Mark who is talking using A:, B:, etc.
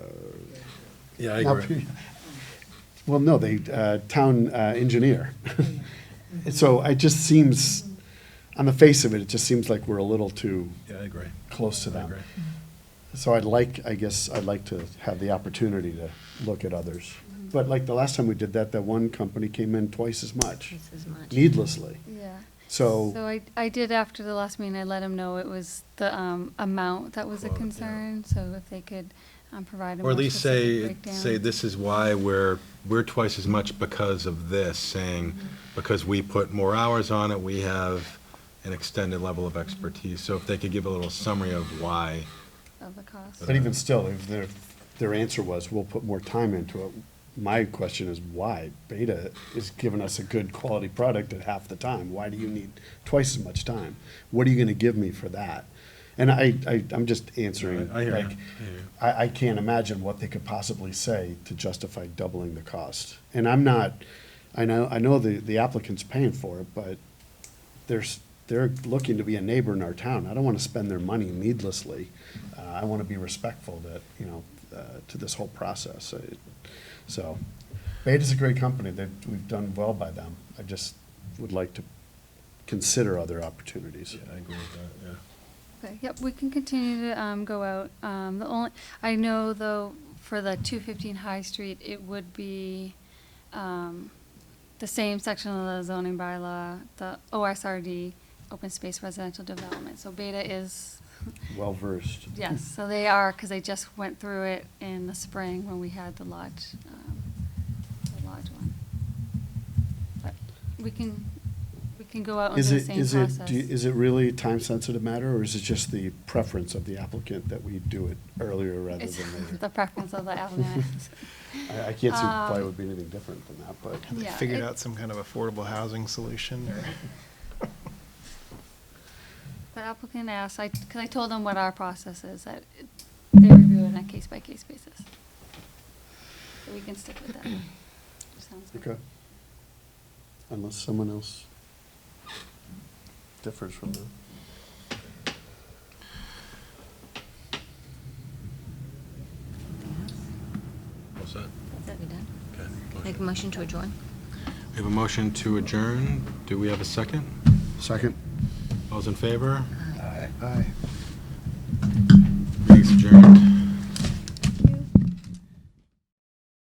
A: Yeah, I agree.
B: Well, no, they, uh, town uh, engineer. So it just seems, on the face of it, it just seems like we're a little too
A: Yeah, I agree.
B: close to
A: I
B: them. Mm-hmm.
A: agree.
B: So I'd like, I guess, I'd like to have the opportunity to look at others. But like the last time we did that, that one company came in twice as much,
C: Twice as much.
B: needlessly.
C: Yeah. So
B: So,
C: I, I did after the last meeting, I let him know it was the, um, amount that was a
A: Quote, yeah.
C: concern, so if they could, um, provide a
A: Or
C: more
A: at least say,
C: specific
A: say
C: breakdown.
A: this is why we're, we're twice as much because of this, saying, because we put more hours on it, we have an extended level of expertise. So if they could give a little summary of why,
C: Of the cost.
B: but even still, if their, their answer was, we'll put more time into it, my question is why? Beta is giving us a good quality product at half the time. Why do you need twice as much time? What are you gonna give me for that? And I, I, I'm just answering,
A: I hear you.
B: like, I, I can't imagine what they could possibly say to justify doubling the cost. And I'm not, I know, I know the, the applicant's paying for it, but there's, they're looking to be a neighbor in our town. I don't want to spend their money needlessly. Uh, I want to be respectful that, you know, uh, to this whole process. I- So, Beta's a great company. They've, we've done well by them. I just would like to consider other opportunities.
A: I agree with that, yeah.
C: Okay, yep, we can continue to, um, go out. Um, the only, I know though, for the two fifteen High Street, it would be, um, the same section of the zoning bylaw, the OSRD, open space residential development. So Beta is
B: Well-versed.
C: Yes, so they are, because they just went through it in the spring when we had the lodge, um, the lodge one. But we can, we can go out and
B: Is
C: do the
B: it,
C: same
B: is it, do you-
C: process.
B: is it really a time-sensitive matter, or is it just the preference of the applicant that we do it earlier rather
C: It's
B: than later?
C: the preference of the applicant.
B: I, I can't see why it
C: um,
B: would be anything different than that, but.
D: Have they
C: Yeah,
D: figured
C: it-
D: out some kind of affordable housing solution? or-
C: The applicant asked, I, because I told them what our process is, that it- they review it on a case-by-case basis. So we can stick with that. Sounds good.
B: Okay. Unless someone else differs from them.
A: What's that?
E: We done?
A: Okay.
E: Make a
A: motion.
E: motion to adjourn?
A: We have a motion to adjourn. Do we have a second?
B: Second. Uh-huh.
A: All's in favor?
B: Aye.
A: Meeting's adjourned.